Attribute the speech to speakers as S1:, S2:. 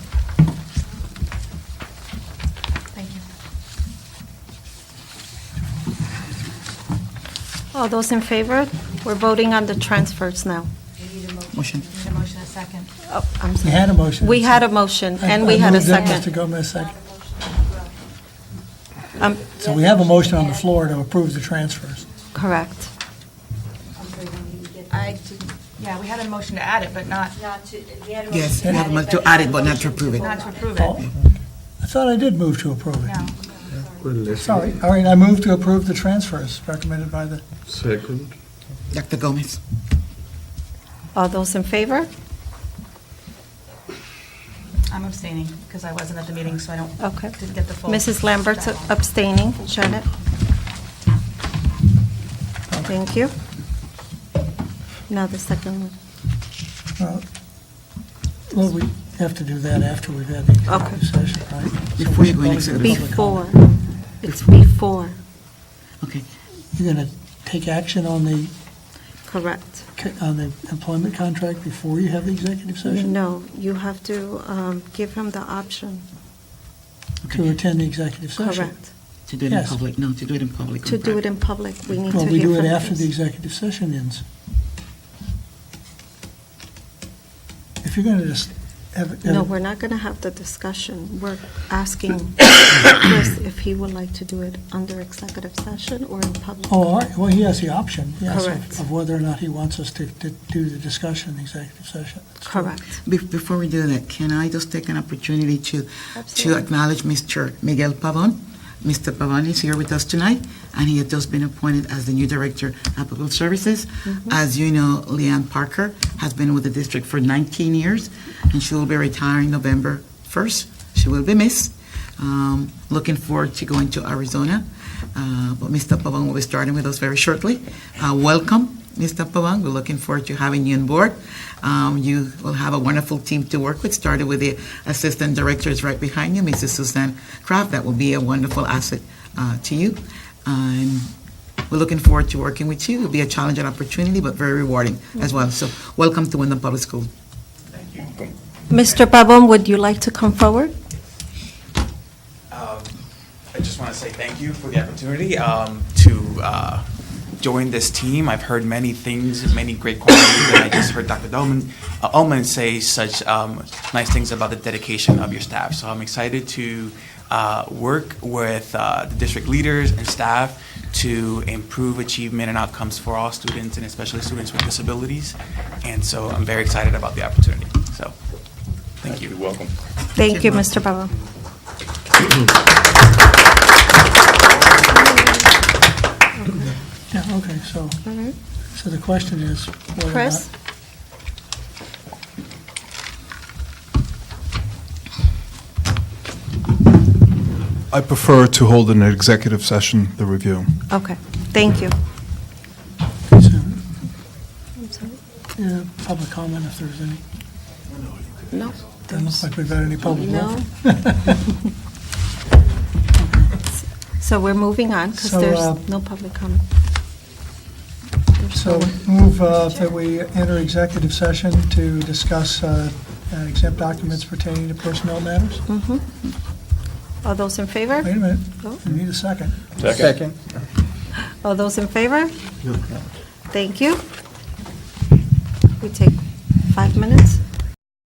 S1: All those in favor? We're voting on the transfers now.
S2: Motion.
S3: A motion, a second.
S1: Oh, I'm
S4: We
S1: sorry.
S4: had a motion.
S1: We had a motion,
S4: I-
S1: and
S4: I
S1: we had a
S4: moved it, Mr.
S1: second.
S4: Gomez, second.
S1: Um,
S4: So we have a motion on the floor to approve the transfers.
S1: Correct.
S3: I didn't, yeah, we had a motion to add it, but not,
S2: Yes, we have a mo- to add it, but not to approve it.
S3: not to approve
S4: Oh,
S3: it.
S4: I thought I did move to approve it.
S3: No.
S4: Sorry, all right, I move to approve the transfers recommended by the,
S5: Second.
S2: Dr. Gomez.
S1: All those in favor?
S3: I'm abstaining because I wasn't at the meeting, so I don't,
S1: Okay.
S3: didn't get the full.
S1: Mrs. Lambert's abstaining. Janet? Thank you. Now the second one.
S4: well, we have to do that after we've had the
S1: Okay.
S4: executive session, right? So
S2: Before you
S4: we
S2: go in
S4: should
S2: executive
S4: probably do public
S1: Before.
S4: comment.
S1: It's before,
S2: Okay.
S4: You're going to take action on the,
S1: correct.
S4: co- on the employment contract before you have the executive session?
S1: No, you have to um, give him the option,
S4: To attend the executive session?
S1: correct.
S2: To do it in
S4: Yes.
S2: public, no, to do it in public. on
S1: To do it
S2: Friday.
S1: in public, we need to
S4: Well,
S1: hear
S4: we do it
S1: from
S4: after
S1: him.
S4: the executive session ends. If you're going to just have. have-
S1: No, we're not going to have the discussion. We're asking Chris if he would like to do it under executive session or in public.
S4: Oh, all right, well, he has the option, yes, of-
S1: Correct.
S4: of whether or not he wants us to to do the discussion in the executive session. That's true.
S1: Correct.
S2: Be- Before we do that, can I just take an opportunity to, to
S1: Absolutely.
S2: acknowledge Mr. Miguel Pavon? Mr. Pavon is here with us tonight, and he has just been appointed as the new Director of Public Services. As you know, Leanne Parker has been with the district for 19 years, and she will be retiring November 1st. She will be missed. Um, Looking forward to going to Arizona, Uh, but Mr. Pavon will be starting with us very shortly. Uh, Welcome, Mr. Pavon. We're looking forward to having you on board. Um, You will have a wonderful team to work with, started with the assistant directors right behind you, Mrs. Suzanne Kraft. That will be a wonderful asset uh, to you. And we're looking forward to working with you. It'll be a challenge and opportunity, but very rewarding as well. So welcome to Wyndham Public School.
S1: Mr. Babon, would you like to come forward?
S6: Um, I just want to say thank you for the opportunity um, to uh, join this team. I've heard many things, many great qualities, and I just heard Dr. Dolman, uh, Ullman say such um, nice things about the dedication of your staff. So I'm excited to uh, work with uh, the district leaders and staff to improve achievement and outcomes for all students, and especially students with disabilities. And so I'm very excited about the opportunity. So, thank you.
S5: Welcome.
S1: Thank you, Mr. Babon.
S4: Yeah, okay, so,
S1: All right.
S4: so the question is. whether or
S1: Mm-hmm. Chris?
S4: not-
S7: I prefer to hold an executive session, the review.
S1: Okay, thank you.
S4: so,
S1: I'm sorry.
S4: yeah, Public comment, if there's any.
S1: No,
S4: Doesn't look like we've had any public.
S1: no.
S4: comment.
S1: So we're moving on because
S4: So, uh,
S1: there's no public comment. There's no
S4: So
S1: one.
S4: move uh, that we enter executive session to discuss uh, uh, exempt documents pertaining to personnel matters.
S1: All those in favor?
S4: Wait a minute,
S1: Go.
S4: we need a second.
S5: Second.
S1: All those in favor? Thank you. We take five minutes.